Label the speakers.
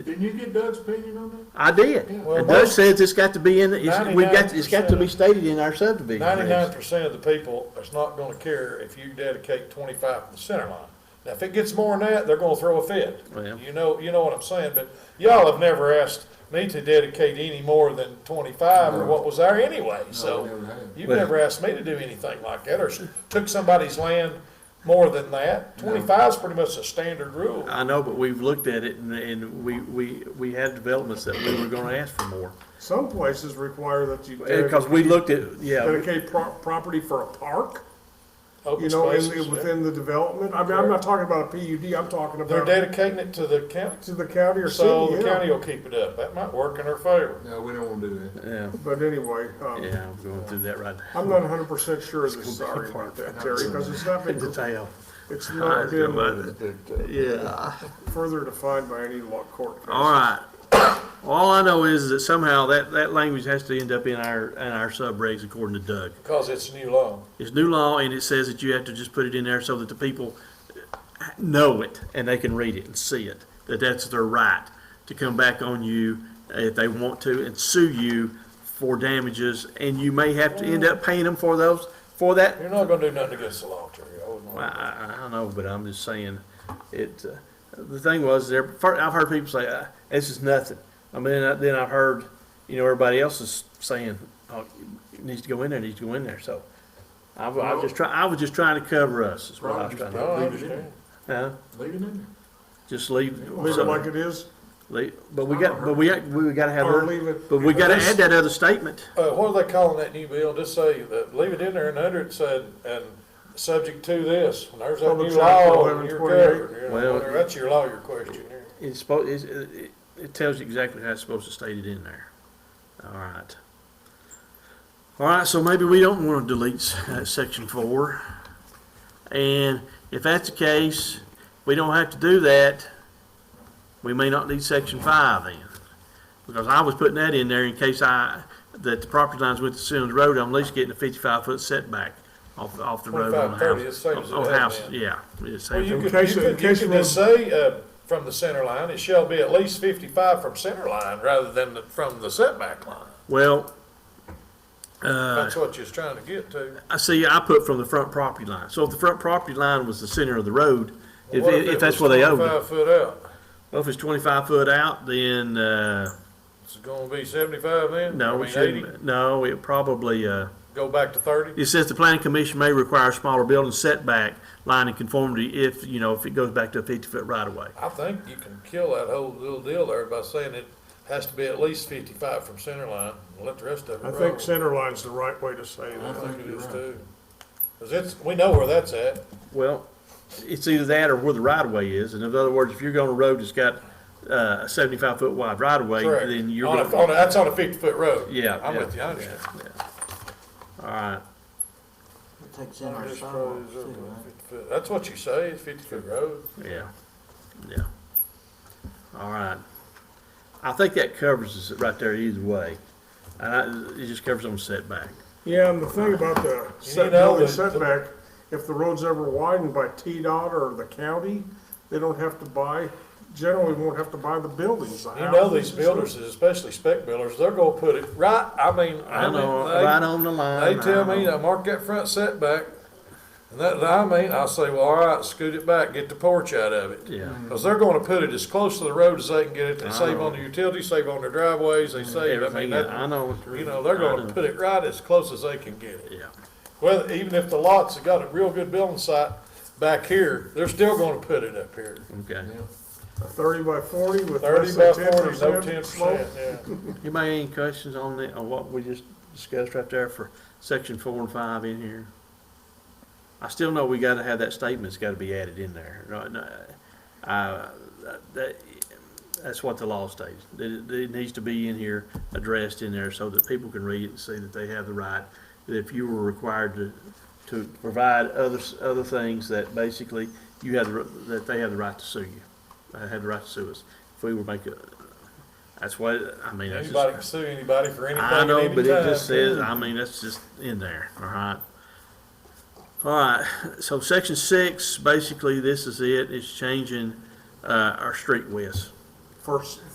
Speaker 1: Didn't you get Doug's opinion on
Speaker 2: I did.
Speaker 1: Well,
Speaker 2: And Doug says it's got to be in, it's, we've got, it's got to be
Speaker 3: 99%
Speaker 2: stated in our subdivision
Speaker 3: Ninety-nine
Speaker 2: regs.
Speaker 3: percent of the people is not gonna care if you dedicate twenty-five to the center line. Now, if it gets more than that, they're gonna throw a fit.
Speaker 2: Well.
Speaker 3: You know, you know what I'm saying, but y'all have never asked me to dedicate any more than twenty-five or what was there anyway, so.
Speaker 1: never have.
Speaker 3: You've
Speaker 2: Well-
Speaker 3: never asked me to do anything like that, or s- took somebody's land more than that. Twenty-five's pretty much a standard rule.
Speaker 2: I know, but we've looked at it and, and we, we, we had developments that we were gonna ask for more.
Speaker 4: Some places require that you
Speaker 2: Because we looked at, yeah,
Speaker 4: dedicate pro- property for a park,
Speaker 3: Open
Speaker 4: you know, in,
Speaker 3: spaces,
Speaker 4: in-
Speaker 3: yeah.
Speaker 4: within the development. I mean, I'm not talking about a PUD, I'm talking
Speaker 3: They're
Speaker 4: about
Speaker 3: dedicating it to the county,
Speaker 4: to the county or
Speaker 3: so
Speaker 4: city,
Speaker 3: the
Speaker 4: yeah.
Speaker 3: county will keep it up. That might work in our favor.
Speaker 1: that? No, we don't wanna do that.
Speaker 2: yeah,
Speaker 4: But anyway, um,
Speaker 2: yeah, I'm going through that right now.
Speaker 4: I'm not hundred percent sure of this, sorry about that, Terry, because it's not been,
Speaker 2: Detail.
Speaker 4: it's not been
Speaker 2: Yeah,
Speaker 4: further defined by any law court. case.
Speaker 2: all right. All I know is that somehow that, that language has to end up in our, in our subregs according to Doug.
Speaker 3: Because it's new law.
Speaker 2: It's new law, and it says that you have to just put it in there so that the people know it, and they can read it and see it, that that's their right to come back on you if they want to and sue you for damages, and you may have to end up paying them for those, for that.
Speaker 3: You're not gonna do nothing against the law, Terry. I wouldn't
Speaker 2: I,
Speaker 3: want to.
Speaker 2: I, I don't know, but I'm just saying, it, uh, the thing was, there, fir- I've heard people say, uh, this is nothing. I mean, I- then I've heard, you know, everybody else is saying, oh, it needs to go in there, it needs to go in there, so. I was, I was just trying, I was just trying to cover us, is what I was trying to,
Speaker 3: No, I
Speaker 1: Leave it in.
Speaker 3: understand.
Speaker 2: huh?
Speaker 1: Leave it in there.
Speaker 2: Just leave,
Speaker 4: Leave it like it is,
Speaker 2: leave- but we got, but we, got- we gotta have,
Speaker 4: or
Speaker 2: other-
Speaker 4: leave it.
Speaker 2: but we gotta add that other statement.
Speaker 3: Uh, what are they calling that new bill? Just say, that, leave it in there and under it said, and subject to this. When there's that
Speaker 4: Public
Speaker 3: new
Speaker 4: Act
Speaker 3: law,
Speaker 4: 1128.
Speaker 3: you're covered. you know.
Speaker 2: Well-
Speaker 3: That's your lawyer question there.
Speaker 2: It's supposed, it's, it, it tells you exactly how it's supposed to state it in there. All right. All right, so maybe we don't want to delete s- uh, section four. And if that's the case, we don't have to do that. We may not need section five then. Because I was putting that in there in case I, that the property lines went to Sims Road, I'm at least getting a fifty-five foot setback off, off the road on a
Speaker 3: 25, 30, it
Speaker 2: house.
Speaker 3: saves it
Speaker 2: On
Speaker 3: up
Speaker 2: house,
Speaker 3: then.
Speaker 2: yeah. it saves
Speaker 3: Well,
Speaker 2: it.
Speaker 3: you could,
Speaker 4: case
Speaker 3: you
Speaker 4: of- in
Speaker 3: could, you
Speaker 4: case
Speaker 3: could
Speaker 4: of-
Speaker 3: just say, uh, from the center line, it shall be at least fifty-five from center line rather than the- from the setback line.
Speaker 2: Well,
Speaker 3: That's what you're trying to get to.
Speaker 2: I see, I put from the front property line. So if the front property line was the center of the road, if,
Speaker 3: What it
Speaker 2: if that's
Speaker 3: was
Speaker 2: where they owned it.
Speaker 3: Twenty-five foot out.
Speaker 2: Well, if it's twenty-five foot out, then, uh,
Speaker 3: It's gonna be seventy-five then? I
Speaker 2: no, we
Speaker 3: mean, 80?
Speaker 2: shouldn't, no, it probably, uh,
Speaker 3: Go back to thirty?
Speaker 2: it says the planning commission may require a smaller building setback line in conformity if, you know, if it goes back to a fifty-foot right-of-way.
Speaker 3: I think you can kill that whole little deal there by saying it has to be at least fifty-five from center line, and let the rest of it
Speaker 4: I
Speaker 3: roll.
Speaker 4: think center line's the right way to say
Speaker 3: I
Speaker 4: that.
Speaker 3: think it
Speaker 1: You're
Speaker 3: is
Speaker 1: right.
Speaker 3: too. Cause it's, we know where that's at.
Speaker 2: Well, it's either that or where the right-of-way is. In other words, if you're going a road that's got, uh, a seventy-five foot wide right-of-way,
Speaker 3: Correct.
Speaker 2: then you're.
Speaker 3: On a-
Speaker 2: gonna-
Speaker 3: on a- that's on a fifty-foot road.
Speaker 2: Yeah,
Speaker 3: I'm
Speaker 2: yeah,
Speaker 3: with you, I understand.
Speaker 2: All right.
Speaker 5: It takes in our
Speaker 3: Just
Speaker 5: sidewalks
Speaker 3: roads up
Speaker 5: too,
Speaker 3: to
Speaker 5: right?
Speaker 3: 50 foot. That's what you say, it's fifty foot road.
Speaker 2: Yeah, yeah. All right. I think that covers us right there either way. And I, it just covers on setback.
Speaker 4: Yeah, and the thing about the
Speaker 3: You
Speaker 4: set-
Speaker 3: know,
Speaker 4: building
Speaker 3: the-
Speaker 4: setback, if the road's ever widened by T-Dot or the county, they don't have to buy, generally won't have to buy the buildings, the
Speaker 3: You know, these
Speaker 4: houses.
Speaker 3: builders, especially spec builders, they're gonna put it right, I mean,
Speaker 2: I
Speaker 3: I
Speaker 2: know, right
Speaker 3: mean,
Speaker 2: on the
Speaker 3: they,
Speaker 2: line.
Speaker 3: they tell me,
Speaker 2: I know.
Speaker 3: I mark that front setback. And that, I mean, I say, well, all right, scoot it back, get the porch out of it.
Speaker 2: Yeah.
Speaker 3: Cause they're gonna put it as close to the road as they can get it, they save on the utilities, save on their driveways, they save, I mean,
Speaker 2: Everything, I
Speaker 3: that,
Speaker 2: know. what you're-
Speaker 3: you know, they're
Speaker 2: I
Speaker 3: gonna
Speaker 2: know.
Speaker 3: put it right as close as they can get it.
Speaker 2: Yeah,
Speaker 3: Well, even if the lots have got a real good building site back here, they're still gonna put it up here.
Speaker 2: okay.
Speaker 4: A Thirty by forty with
Speaker 3: Thirty
Speaker 4: less
Speaker 3: by
Speaker 4: than ten
Speaker 3: forty, no ten
Speaker 4: percent slope.
Speaker 3: percent, yeah.
Speaker 2: Anybody any questions on the, on what we just discussed right there for section four and five in here? I still know we gotta have that statement's gotta be added in there. No, no, Uh, that, that's what the law states. It, it needs to be in here, addressed in there so that people can read it and see that they have the right. That if you were required to, to provide others, other things that basically you have, the r- that they have the right to sue you. They have the right to sue us. If we were make a, that's why, I mean, that's just.
Speaker 3: Anybody can sue anybody for anything
Speaker 2: I
Speaker 3: at
Speaker 2: know,
Speaker 3: any
Speaker 2: but it
Speaker 3: time.
Speaker 2: just says, I mean, that's just in there, all right? All right, so section six, basically, this is it, it's changing, uh, our street widths.
Speaker 4: First,